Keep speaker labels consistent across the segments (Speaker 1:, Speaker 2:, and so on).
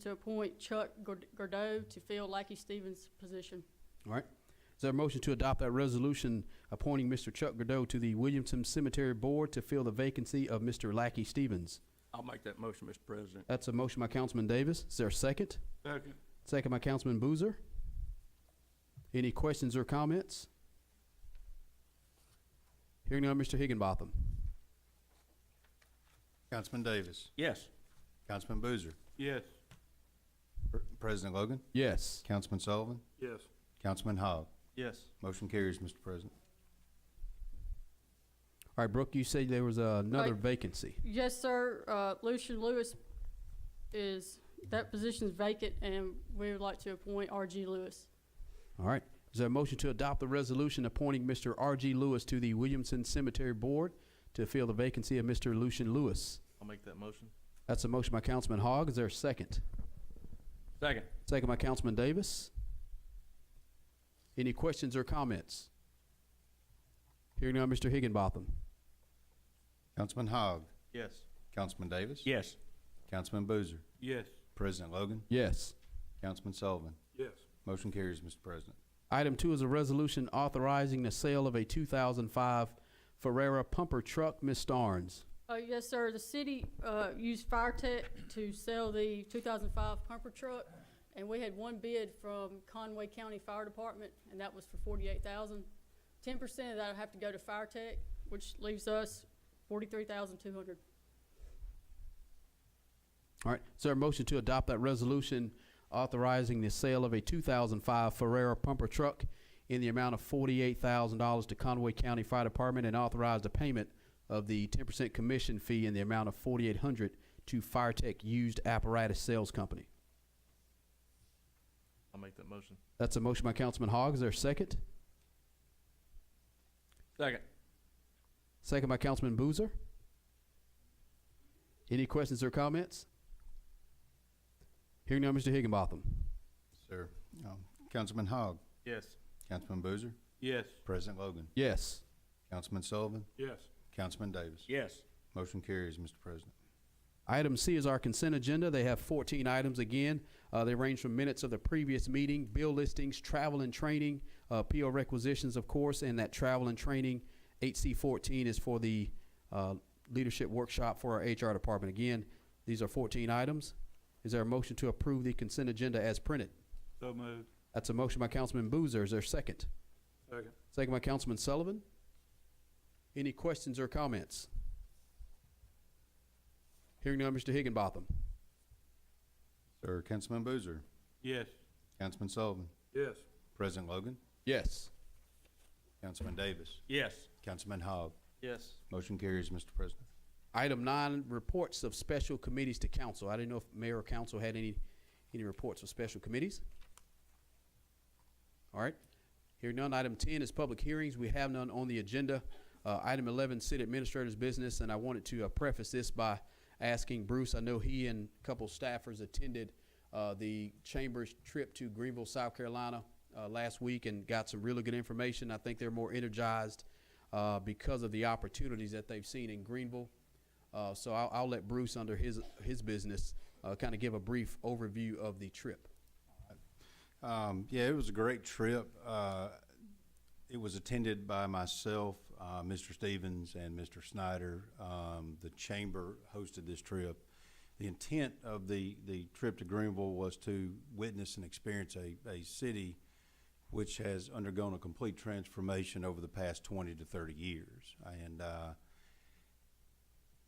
Speaker 1: to appoint Chuck Gord- Gordeau to fill Lackey Stevens' position.
Speaker 2: All right. Is there a motion to adopt that resolution appointing Mr. Chuck Godot to the Williamson Cemetery Board to fill the vacancy of Mr. Lackey Stevens?
Speaker 3: I'll make that motion, Mr. President.
Speaker 2: That's a motion by Councilman Davis. Is there a second?
Speaker 3: Second.
Speaker 2: Second by Councilman Boozer. Any questions or comments? Hearing none, Mr. Higginbotham.
Speaker 4: Councilman Davis.
Speaker 3: Yes.
Speaker 4: Councilman Boozer.
Speaker 3: Yes.
Speaker 4: Pr- President Logan.
Speaker 2: Yes.
Speaker 4: Councilman Sullivan.
Speaker 3: Yes.
Speaker 4: Councilman Hogg.
Speaker 3: Yes.
Speaker 4: Motion carries, Mr. President.
Speaker 2: All right, Brooke, you said there was uh, another
Speaker 1: Right.
Speaker 2: vacancy.
Speaker 1: Yes, sir, uh, Lucian Lewis is, that position is vacant, and we would like to appoint R.G. Lewis.
Speaker 2: All right. Is there a motion to adopt the resolution appointing Mr. R.G. Lewis to the Williamson Cemetery Board to fill the vacancy of Mr. Lucian Lewis?
Speaker 3: I'll make that motion.
Speaker 2: That's a motion by Councilman Hogg. Is there a second?
Speaker 3: Second.
Speaker 2: Second by Councilman Davis. Any questions or comments? Hearing none, Mr. Higginbotham.
Speaker 4: Councilman Hogg.
Speaker 3: Yes.
Speaker 4: Councilman Davis.
Speaker 3: Yes.
Speaker 4: Councilman Boozer.
Speaker 3: Yes.
Speaker 4: President Logan.
Speaker 2: Yes.
Speaker 4: Councilman Sullivan.
Speaker 3: Yes.
Speaker 4: Motion carries, Mr. President.
Speaker 2: Item two is a resolution authorizing the sale of a 2005 Ferrera pumper truck. Ms. Starnes.
Speaker 1: Uh, yes, sir. The city, uh, used Fire Tech to sell the two thousand five pumper truck, and we had one bid from Conway County Fire Department, and that was for forty-eight thousand. Ten percent of that would have to go to Fire Tech, which leaves us forty-three thousand two hundred.
Speaker 2: All right. Is there a motion to adopt that resolution authorizing the sale of a 2005 Ferrera pumper truck in the amount of $48,000 to Conway County Fire Department and authorize the payment of the 10% commission fee in the amount of 4800 to FireTech Used Apparatus Sales Company?
Speaker 3: I'll make that motion.
Speaker 2: That's a motion by Councilman Hogg. Is there a second?
Speaker 3: Second.
Speaker 2: Second by Councilman Boozer. Any questions or comments? Hearing none, Mr. Higginbotham.
Speaker 4: Sir. um, Councilman Hogg.
Speaker 3: Yes.
Speaker 4: Councilman Boozer.
Speaker 3: Yes.
Speaker 4: President Logan.
Speaker 2: Yes.
Speaker 4: Councilman Sullivan.
Speaker 3: Yes.
Speaker 4: Councilman Davis.
Speaker 3: Yes.
Speaker 4: Motion carries, Mr. President.
Speaker 2: Item C is our consent agenda. They have 14 items again. Uh, they range from minutes of the previous meeting, bill listings, travel and training, uh, PO requisitions, of course, and that travel and training, HC 14 is for the uh, leadership workshop for our HR department. Again, these are 14 items. Is there a motion to approve the consent agenda as printed?
Speaker 3: So moved.
Speaker 2: That's a motion by Councilman Boozer. Is there a second?
Speaker 3: Second.
Speaker 2: Second by Councilman Sullivan. Any questions or comments? Hearing none, Mr. Higginbotham.
Speaker 4: Sir. Councilman Boozer.
Speaker 3: Yes.
Speaker 4: Councilman Sullivan.
Speaker 3: Yes.
Speaker 4: President Logan.
Speaker 2: Yes.
Speaker 4: Councilman Davis.
Speaker 3: Yes.
Speaker 4: Councilman Hogg.
Speaker 3: Yes.
Speaker 4: Motion carries, Mr. President.
Speaker 2: Item nine, reports of special committees to council. I didn't know if mayor or council had any, any reports of special committees. All right. Hearing none. Item ten is public hearings. We have none on the agenda. Uh, item eleven, city administrator's business, and I wanted to uh, preface this by asking Bruce, I know he and a couple staffers attended, uh, the chamber's trip to Greenville, South Carolina, uh, last week and got some really good information. I think they're more energized, uh, because of the opportunities that they've seen in Greenville. Uh, so I'll, I'll let Bruce under his, his business, uh, kind of give a brief overview of the trip.
Speaker 4: Um, yeah, it was a great trip. Uh, it was attended by myself, uh, Mr. Stevens, and Mr. Snyder. Um, the chamber hosted this trip. The intent of the, the trip to Greenville was to witness and experience a, a city which has undergone a complete transformation over the past 20 to 30 years. And uh,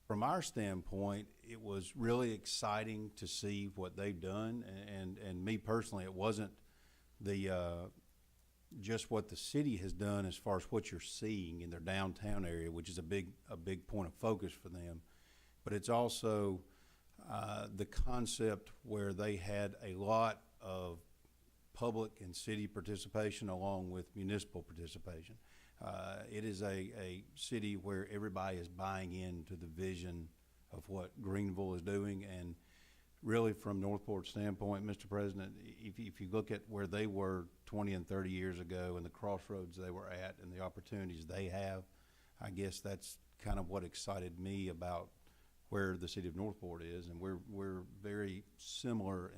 Speaker 4: from our standpoint, it was really exciting to see what they've done, and and me personally, it wasn't the uh, just what the city has done as far as what you're seeing in their downtown area, which is a big a big point of focus for them, but it's also uh, the concept where they had a lot of public and city participation along with municipal participation. Uh, it is a, a city where everybody is buying into the vision of what Greenville is doing. And really, from Northport's standpoint, Mr. President, i- if, if you look at where they were 20 and 30 years ago and the crossroads they were at and the opportunities they have, I guess that's kind of what excited me about where the city of Northport is. And we're, we're very similar